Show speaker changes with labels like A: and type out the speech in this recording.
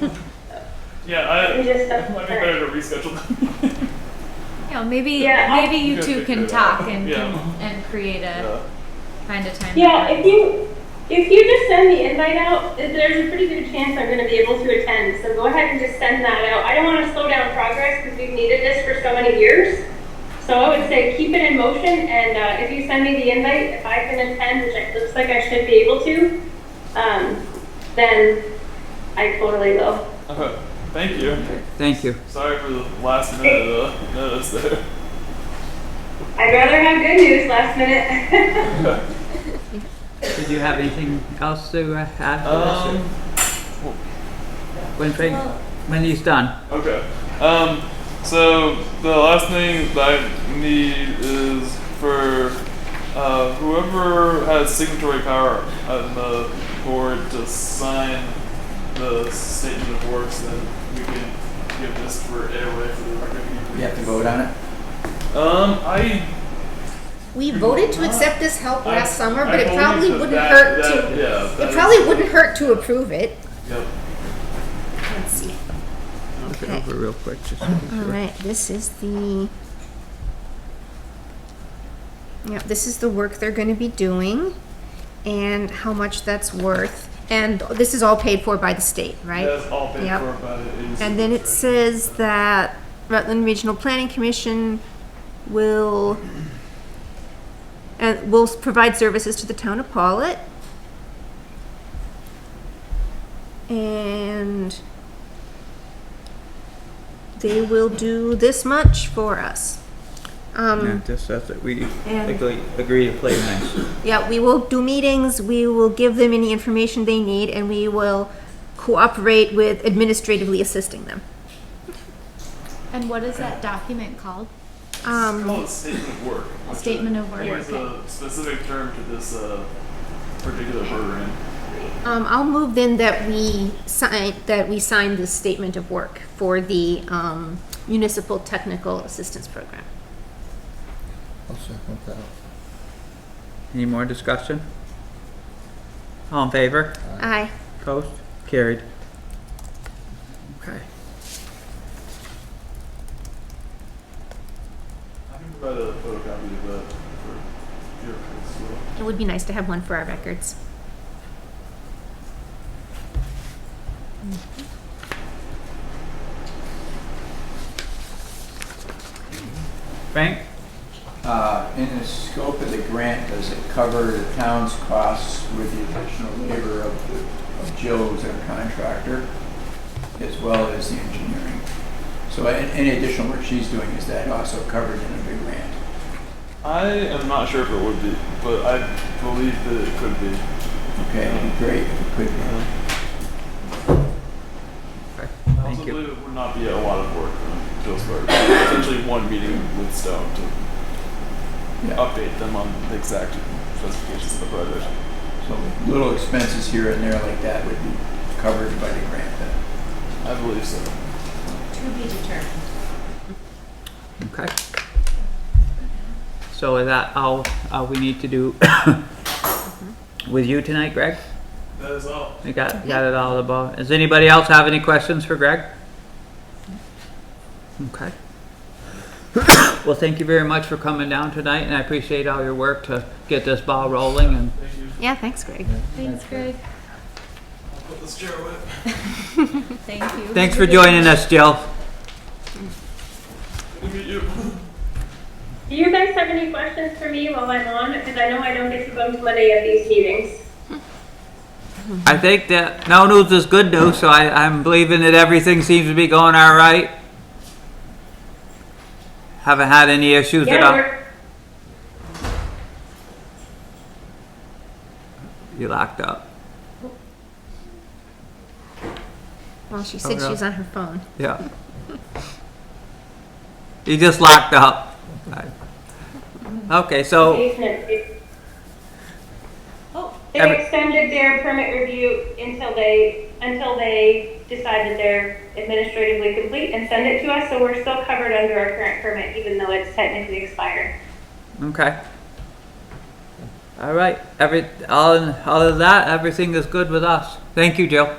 A: Yeah,
B: We
A: I,
B: just
A: I
B: have
A: might be
B: to.
A: better to reschedule that.
C: Yeah, maybe
B: Yeah.
C: maybe you
A: Good
C: two
A: to
C: can
A: do.
C: talk and
A: Yeah.
C: can, and create a find a time.
B: Yeah,
C: to-
B: if you, if you just send the invite out, there's a pretty good chance I'm gonna be able to attend, so go ahead and just send that out. I don't wanna slow down progress, because we've needed this for so many years. So I would say keep it in motion, and, uh, if you send me the invite, if I can attend, which it looks like I should be able to, um, then I totally will.
A: Okay, Uh, thank you.
D: Thank you.
A: Sorry for the last minute uh, notice there.
B: I'd rather have good news last minute.
D: Did you have anything else to uh, add to
A: Um,
D: this? When, Frank- when he's done.
A: okay. Um, so the last thing that I need is for uh, whoever has signatory power on the board to sign the statement of works, then we can give this for airway for the record.
E: You have to vote on it?
A: Um, I
F: We voted to accept this help
A: I-
F: last summer,
A: I
F: but it
A: believe
F: probably
A: that
F: wouldn't
A: that-
F: hurt
A: that-
F: to,
A: yeah, that
F: it
A: is-
F: probably wouldn't hurt to approve it.
A: Yep.
F: Let's see.
D: Look it
F: Okay.
D: over real quick. just to be
F: All
D: sure.
F: right, this is the, yeah, this is the work they're gonna be doing and how much that's worth. And this is all paid for by the state, right?
A: That's all paid
F: Yep.
A: for by the agency.
F: And then it says that Rutland Regional Planning Commission will, and will s- provide services to the town of Pollitt. And they will do this much for us.
D: Yeah,
F: Um,
D: just that's it. We
F: And-
D: agree, agree to play nice.
F: yeah, we will do meetings, we will give them any information they need, and we will cooperate with administratively assisting them.
C: and what is that document called?
F: Um,
A: It's called a statement of work. which
C: statement of work,
A: There's
C: okay.
A: a specific term to this uh, particular program.
F: Um, I'll move then that we sign, that we sign the statement of work for the, um, municipal technical assistance program.
E: I'll second that.
D: Any more discussion? All in favor?
F: Aye.
D: Opposed? Carried. Okay.
A: I can provide a photocopy of that for your records. so-
F: It would be nice to have one for our records.
D: Frank?
E: Uh, in the scope of the grant, does it cover the town's costs with the additional labor of, the- of Joe as our contractor, as well as the engineering? So a- any additional work she's doing, is that also covered in a big grant?
A: I am not sure if it would be, but I believe that it could be.
E: Okay, it'd be great if it could be.
D: Okay,
A: I also
D: Thank you.
A: believe it would not be a lot of work on Joe's part. Potentially one meeting with Stone to
E: Yeah.
A: update them on the exact specifications of the project.
E: So little expenses here and there like that would be covered by the grant then?
A: I believe so.
D: Okay. So is that all, all we need to do with you tonight, Greg?
A: That is all.
D: We got, got it all above. Does anybody else have any questions for Greg? Okay. Well, thank you very much for coming down tonight and I appreciate all your work to get this ball rolling and
A: Thank you.
F: Yeah, thanks, Greg.
C: Thanks, Greg.
A: I'll put this chair away.
C: Thank you.
D: thanks for joining us, Jill.
A: Look at you.
B: Do you guys have any questions for me while I'm on? Because I know I don't get to go to many of these meetings.
D: I think that no news is good news, so I, I'm believing that everything seems to be going all right. Haven't had any issues at
B: Yeah,
D: all.
B: we're,
D: You locked up.
F: Well, she said
D: Oh,
F: she was on her phone.
D: Yeah. You just locked up. Okay, so
B: basement.
C: Oh.
B: They
D: Every-
B: extended their permit review until they, until they decide that they're administratively complete and send it to us, so we're still covered under our current permit, even though it's technically expired.
D: okay. All right. Every all in, all of that, everything is good with us. Thank you, Jill.